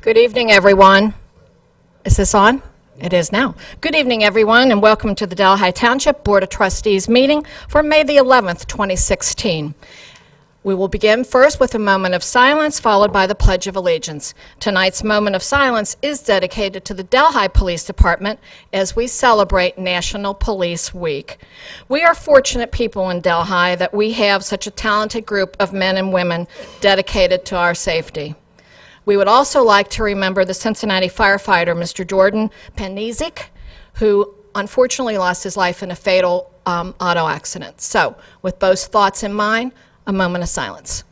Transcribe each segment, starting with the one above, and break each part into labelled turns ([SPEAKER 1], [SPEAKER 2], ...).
[SPEAKER 1] Good evening, everyone. Is this on? It is now. Good evening, everyone, and welcome to the Delhi Township Board of Trustees meeting for May the 11th, 2016. We will begin first with a moment of silence, followed by the Pledge of Allegiance. Tonight's moment of silence is dedicated to the Delhi Police Department as we celebrate National Police Week. We are fortunate people in Delhi that we have such a talented group of men and women dedicated to our safety. We would also like to remember the Cincinnati firefighter, Mr. Jordan Panizik, who unfortunately lost his life in a fatal um, auto accident. So, with those thoughts in mind, a moment of silence.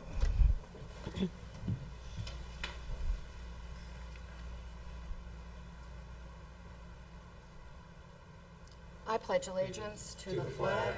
[SPEAKER 1] I pledge allegiance to the flag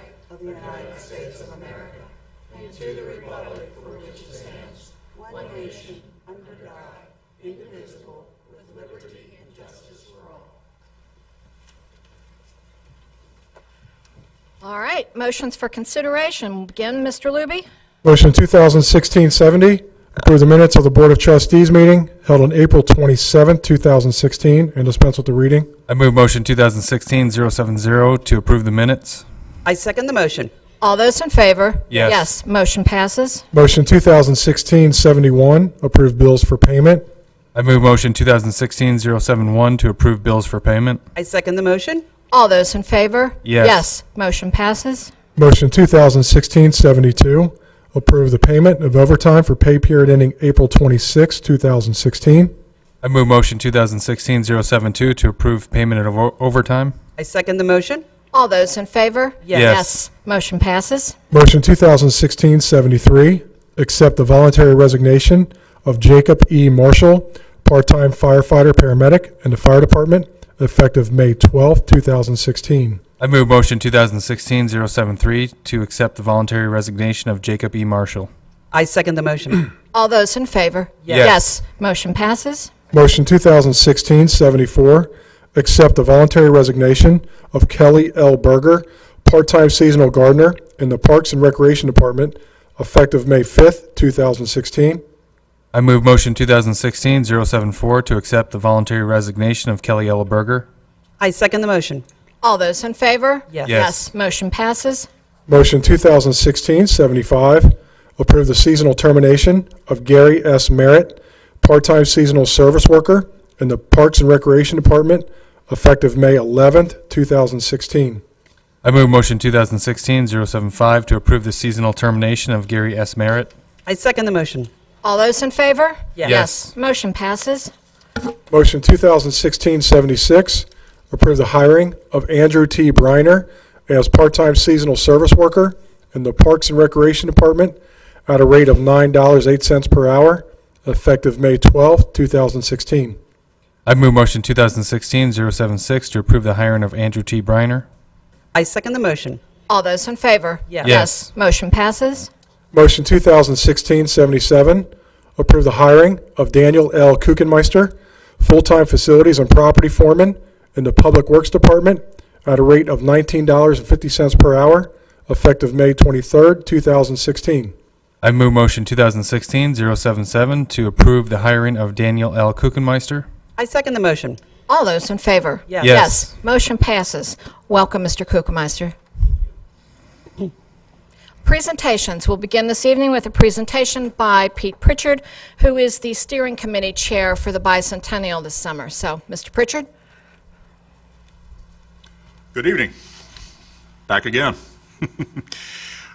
[SPEAKER 1] All right, motions for consideration. We'll Begin, Mr. Luby.
[SPEAKER 2] Motion 2016-70, approve the minutes of the Board of Trustees meeting held on April 27, 2016, and dispense with the reading.
[SPEAKER 3] I move motion 2016-070 to approve the minutes.
[SPEAKER 4] I second the motion.
[SPEAKER 1] All those in favor?
[SPEAKER 3] Yes.
[SPEAKER 1] Yes, motion passes.
[SPEAKER 2] Motion 2016-71, approve bills for payment.
[SPEAKER 3] I move motion 2016-071 to approve bills for payment.
[SPEAKER 4] I second the motion.
[SPEAKER 1] All those in favor?
[SPEAKER 3] Yes.
[SPEAKER 1] Yes, motion passes.
[SPEAKER 2] Motion 2016-72, approve the payment of overtime for pay period ending April 26, 2016.
[SPEAKER 3] I move motion 2016-072 to approve payment of o- overtime.
[SPEAKER 4] I second the motion.
[SPEAKER 1] All those in favor?
[SPEAKER 4] Yes.
[SPEAKER 3] Yes.
[SPEAKER 1] motion passes.
[SPEAKER 2] Motion 2016-73, accept the voluntary resignation of Jacob E. Marshall, part-time firefighter/paramedic in the Fire Department, effective May 12, 2016.
[SPEAKER 3] I move motion 2016-073 to accept the voluntary resignation of Jacob E. Marshall.
[SPEAKER 4] I second the motion.
[SPEAKER 1] All those in favor?
[SPEAKER 3] Yes.
[SPEAKER 1] motion passes.
[SPEAKER 2] Motion 2016-74, accept the voluntary resignation of Kelly L. Berger, part-time seasonal gardener in the Parks and Recreation Department, effective May 5th, 2016.
[SPEAKER 3] I move motion 2016-074 to accept the voluntary resignation of Kelly Ella Berger.
[SPEAKER 4] I second the motion.
[SPEAKER 1] All those in favor?
[SPEAKER 4] Yes.
[SPEAKER 3] Yes.
[SPEAKER 1] motion passes.
[SPEAKER 2] Motion 2016-75, approve the seasonal termination of Gary S. Merritt, part-time seasonal service worker in the Parks and Recreation Department, effective May 11th, 2016.
[SPEAKER 3] I move motion 2016-075 to approve the seasonal termination of Gary S. Merritt.
[SPEAKER 4] I second the motion.
[SPEAKER 1] All those in favor?
[SPEAKER 4] Yes.
[SPEAKER 3] Yes.
[SPEAKER 1] motion passes.
[SPEAKER 2] Motion 2016-76, approve the hiring of Andrew T. Briner as part-time seasonal service worker in the Parks and Recreation Department at a rate of $9.08 per hour, effective May 12, 2016.
[SPEAKER 3] I move motion 2016-076 to approve the hiring of Andrew T. Briner.
[SPEAKER 4] I second the motion.
[SPEAKER 1] All those in favor?
[SPEAKER 4] Yes.
[SPEAKER 3] Yes.
[SPEAKER 1] motion passes.
[SPEAKER 2] Motion 2016-77, approve the hiring of Daniel L. Kuchenmeister, full-time facilities and property foreman in the Public Works Department at a rate of $19.50 per hour, effective May 23, 2016.
[SPEAKER 3] I move motion 2016-077 to approve the hiring of Daniel L. Kuchenmeister.
[SPEAKER 4] I second the motion.
[SPEAKER 1] All those in favor?
[SPEAKER 4] Yes.
[SPEAKER 1] Yes, motion passes. Welcome, Mr. Kukemeister. Presentations. We'll begin this evening with a presentation by Pete Pritchard, who is the steering committee chair for the bicentennial this summer. So, Mr. Pritchard?
[SPEAKER 5] Good evening. Back again.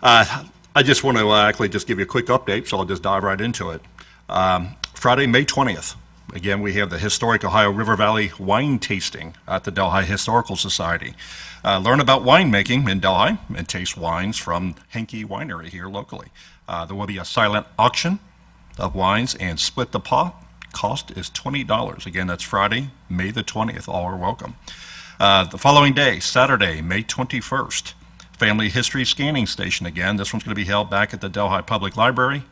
[SPEAKER 5] Uh, I just want to uh, actually just give you a quick update, so I'll just dive right into it. Um, Friday, May 20th, again, we have the historic Ohio River Valley wine tasting at the Delhi Historical Society. Uh, learn about winemaking in Delhi and taste wines from Henke Winery here locally. Uh, there will be a silent auction of wines and split the pot. Cost is $20. Again, that's Friday, May the 20th. All are welcome. Uh, the following day, Saturday, May 21st, Family History Scanning Station again. This one's going to be held back at the Delhi Public Library,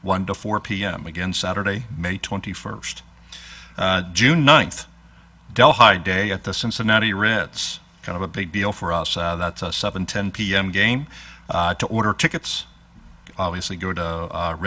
[SPEAKER 5] 1 to 4 p.m. Again, Saturday, May 21st. Uh, June 9th, Delhi Day at the Cincinnati Reds. Kind of a big deal for us. Uh, that's a 7:10 p.m. game. Uh, to order tickets, obviously go to uh,